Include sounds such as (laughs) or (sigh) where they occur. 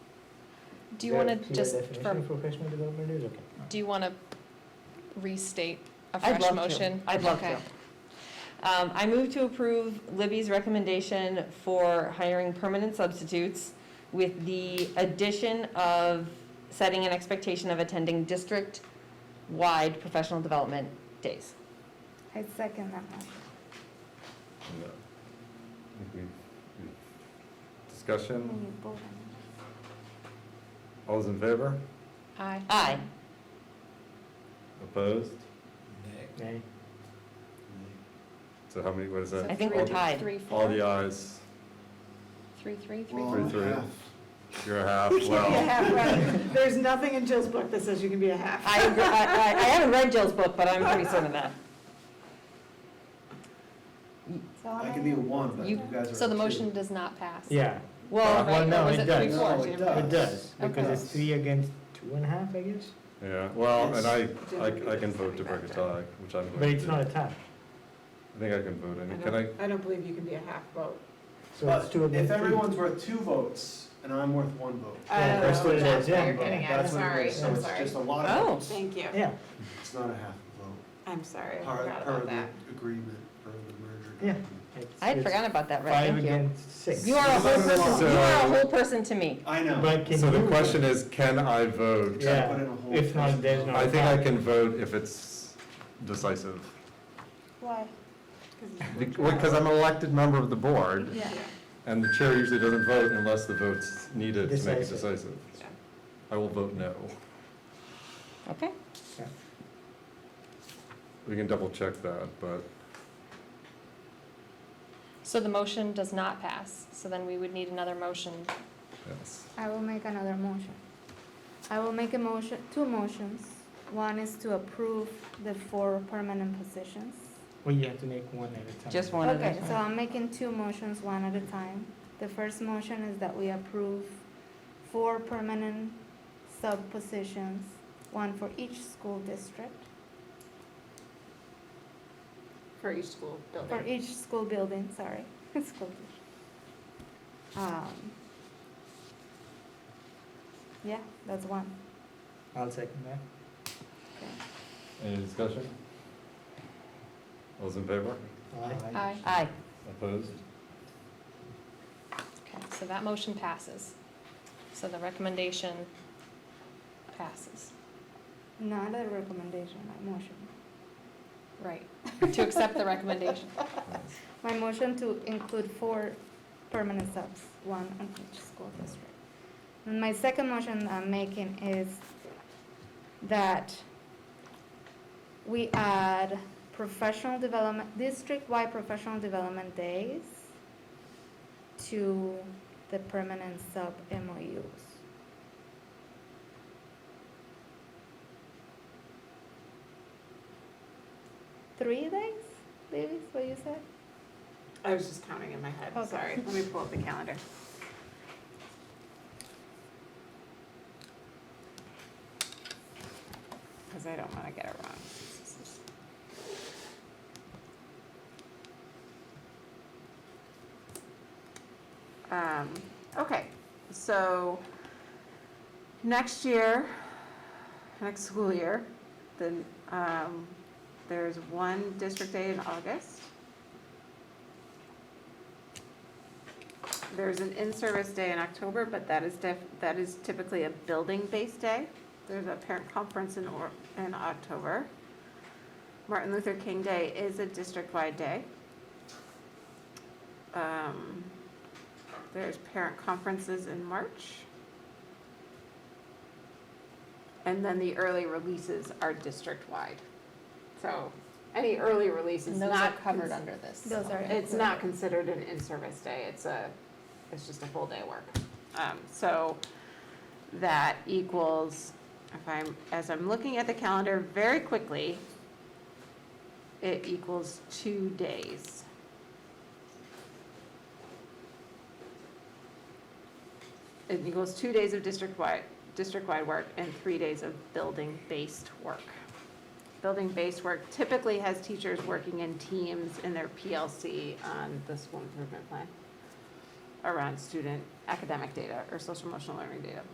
Do you want See to what just, definition for, of professional development is, okay. do you want to restate a I'd fresh love to. motion? I'd love Okay. to. Um, I move to approve Libby's recommendation for hiring permanent substitutes with the addition of setting an expectation of attending district-wide professional development days. I second that one. No. I think we've- we've- Discussion, When you both- all's in favor? Aye. Aye. Opposed? Nay. So how many, what is So that? I think three- we're tied. Three, All four, the ayes, three, three, three. Well, Three, and a three. half. you're a half, You can't be a well, half, right? There's nothing in Jill's book that says you can be a half. I, agree- I, I I haven't read Jill's book, but I'm pretty certain of that. So I I'm can be a one, but you You- guys are. So the a two. motion does not pass? Yeah, Well, Right, well, or no, was it it three, does, four, No, Jim? it it does. does, because Okay. it's three against two and a half, I guess, yeah, well, and I, I I can Yes. vote to break a tie, which I'm but going it's to. not a I tie, think I can vote, I I mean, can I, don't, I don't believe you can be a half vote. so it's But two against if three. everyone's worth two votes and I'm worth one vote. Yeah, Oh, that's what it is, that's yeah. what you're getting at. That's what it Sorry, is. So I'm it's sorry. Just a lot of Oh. votes. Thank you. Yeah, It's not a half vote. I'm sorry, I Per, forgot per about that. the agreement, per the merger. Yeah. document. it's- I had it's forgotten about that, right? Five Thank you. against six. You are a whole person, you are a So- whole person to me. I know. But can you? so the question is, can I vote? Yeah. Put in a whole If not, person there's vote. no- I think I can vote if it's decisive, Why? because I'm an elected member of the board, Yeah. and the chair usually doesn't vote unless the vote's needed to make it Decisive. decisive. I will vote no. Okay. We can double check that, but So the motion does not pass, so then we would need another motion. yes. I will make another motion. I will make a motion, two motions. One is to approve the four permanent positions. Well, you have to make one at a time. Just one at a Okay, time. so I'm making two motions, one at a time. The first motion is that we approve four permanent sub-positions, one for each school district, For each school for building. each school building, sorry, (laughs) school district. Um, Yeah, that's one. I'll second that. Any discussion? All's in favor? Aye. Aye. Aye. Opposed? Okay, so that motion passes. So the recommendation passes. Not a recommendation, my motion. Right. (laughs) To accept the recommendation. My motion to include four permanent subs, one on each school district. And my second motion I'm making is that we add professional development, district-wide professional development days to the permanent sub MOUs. Three days, maybe, is what you said? I was just counting in my head, Okay. sorry. Let me pull up the calendar. Because I don't want to get it wrong. Um, okay, so next year, next school year, then, um, there's one district day in August. There's an in-service day in October, but that is def, that is typically a building-based day. There's a parent conference in or, in October. Martin Luther King Day is a district-wide day. Um, there's parent conferences in March. And then the early releases are district-wide. So any early release is And those are not covered cons- under this. Those are. it's not considered an in-service day, it's a, it's just a full day work. Um, so that equals, if I'm, as I'm looking at the calendar very quickly, it equals two days. It equals two days of district-wide, district-wide work and three days of building-based work. Building-based work typically has teachers working in teams in their PLC on the school improvement plan around student academic data or social emotional learning data.